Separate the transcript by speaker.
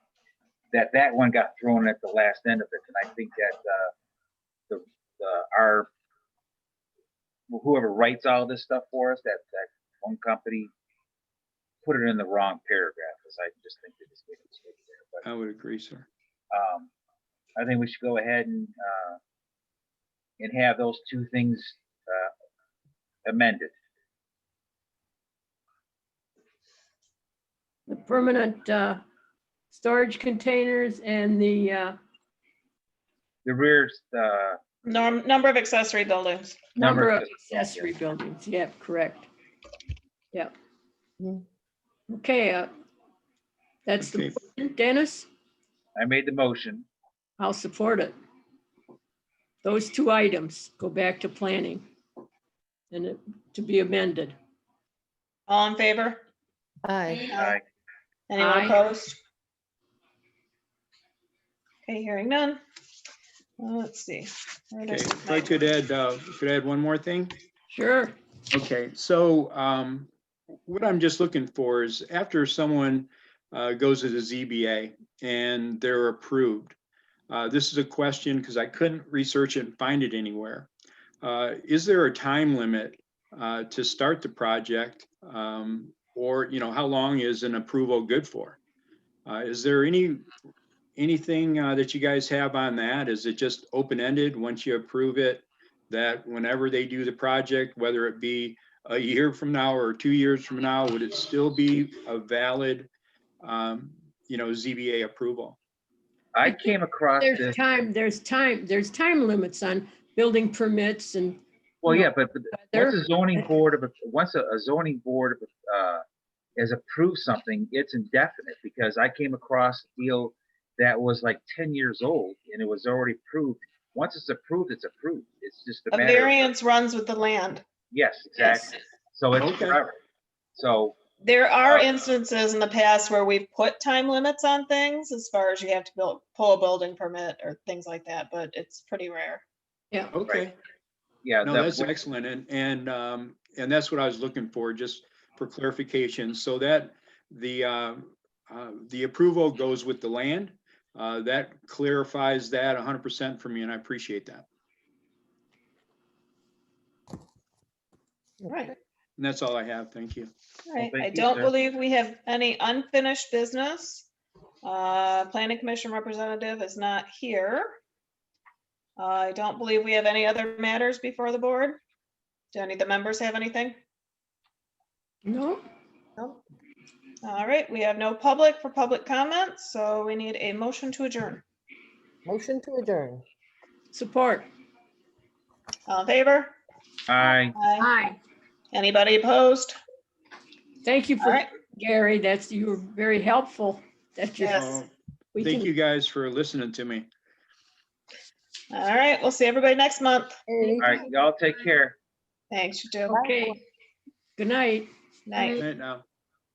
Speaker 1: that that one got thrown at the last end of it, and I think that uh, the the our whoever writes all this stuff for us, that that one company, put it in the wrong paragraph, because I just think they just made a mistake there. But
Speaker 2: I would agree, sir.
Speaker 1: um, I think we should go ahead and uh, and have those two things uh, amended.
Speaker 3: The permanent, uh, storage containers and the, uh,
Speaker 1: The rear uh,
Speaker 4: Norm, number of accessory buildings.
Speaker 1: Number
Speaker 3: number
Speaker 1: of
Speaker 3: of accessory buildings. Yep, correct. Yep. Okay, uh, that's the,
Speaker 2: Okay.
Speaker 3: Dennis,
Speaker 1: I made the motion.
Speaker 3: I'll support it. Those two items go back to planning and it, to be amended.
Speaker 4: All in favor?
Speaker 5: Aye.
Speaker 1: I
Speaker 4: Anyone
Speaker 3: Aye.
Speaker 4: opposed? Okay, hearing none. Uh, Let's see. Where
Speaker 2: Okay,
Speaker 4: does
Speaker 2: if I
Speaker 4: it go?
Speaker 2: could add, uh, could add one more thing?
Speaker 3: Sure.
Speaker 2: Okay, so um, what I'm just looking for is after someone uh, goes to the ZBA and they're approved. uh, This is a question because I couldn't research it and find it anywhere. Uh, Is there a time limit uh, to start the project? Um, Or, you know, how long is an approval good for? Uh, Is there any, anything uh, that you guys have on that? Is it just open-ended? Once you approve it, that whenever they do the project, whether it be a year from now or two years from now, would it still be a valid, um, you know, ZBA approval?
Speaker 1: I came across
Speaker 3: There's
Speaker 1: this.
Speaker 3: time, there's time, there's time limits on building permits and
Speaker 1: Well,
Speaker 3: no,
Speaker 1: yeah, but but
Speaker 3: there-
Speaker 1: once a zoning board of, once a a zoning board of, uh, has approved something, it's indefinite because I came across a deal that was like ten years old and it was already approved. Once it's approved, it's approved. It's just a
Speaker 4: A
Speaker 1: matter. of-
Speaker 4: variance runs with the land.
Speaker 1: Yes,
Speaker 4: Yes.
Speaker 1: exactly. So it's
Speaker 2: Okay.
Speaker 1: forever. So,
Speaker 4: There are
Speaker 1: Uh,
Speaker 4: instances in the past where we've put time limits on things as far as you have to build, pull a building permit or things like that, but it's pretty rare.
Speaker 2: Okay,
Speaker 1: yeah.
Speaker 2: no,
Speaker 1: that-
Speaker 2: that's excellent. And, and, um, and that's what I was looking for, just for clarification, so that the, uh, uh, the approval goes with the land. Uh, that clarifies that hundred percent for me, and I appreciate that.
Speaker 4: Right,
Speaker 2: And that's all I have. Thank you.
Speaker 4: right.
Speaker 1: thank
Speaker 4: I
Speaker 1: you,
Speaker 4: don't
Speaker 1: sir.
Speaker 4: believe we have any unfinished business. Uh, planning commission representative is not here. I don't believe we have any other matters before the board. Do any of the members have anything?
Speaker 3: No,
Speaker 4: No. All right, we have no public for public comments, so we need a motion to adjourn.
Speaker 5: Motion to adjourn.
Speaker 3: support.
Speaker 4: All in favor?
Speaker 1: I,
Speaker 4: Aye.
Speaker 3: Aye.
Speaker 4: Anybody opposed?
Speaker 3: Thank you
Speaker 4: All
Speaker 3: for,
Speaker 4: right,
Speaker 3: Gary, that's, you were very helpful. That you-
Speaker 4: Yes.
Speaker 2: Uh,
Speaker 3: we
Speaker 2: Thank
Speaker 3: can-
Speaker 2: you guys for listening to me.
Speaker 4: all right. We'll see everybody next month.
Speaker 1: all right, y'all take care.
Speaker 4: Thanks, you too.
Speaker 3: Okay, good night.
Speaker 4: Night.
Speaker 2: Right now.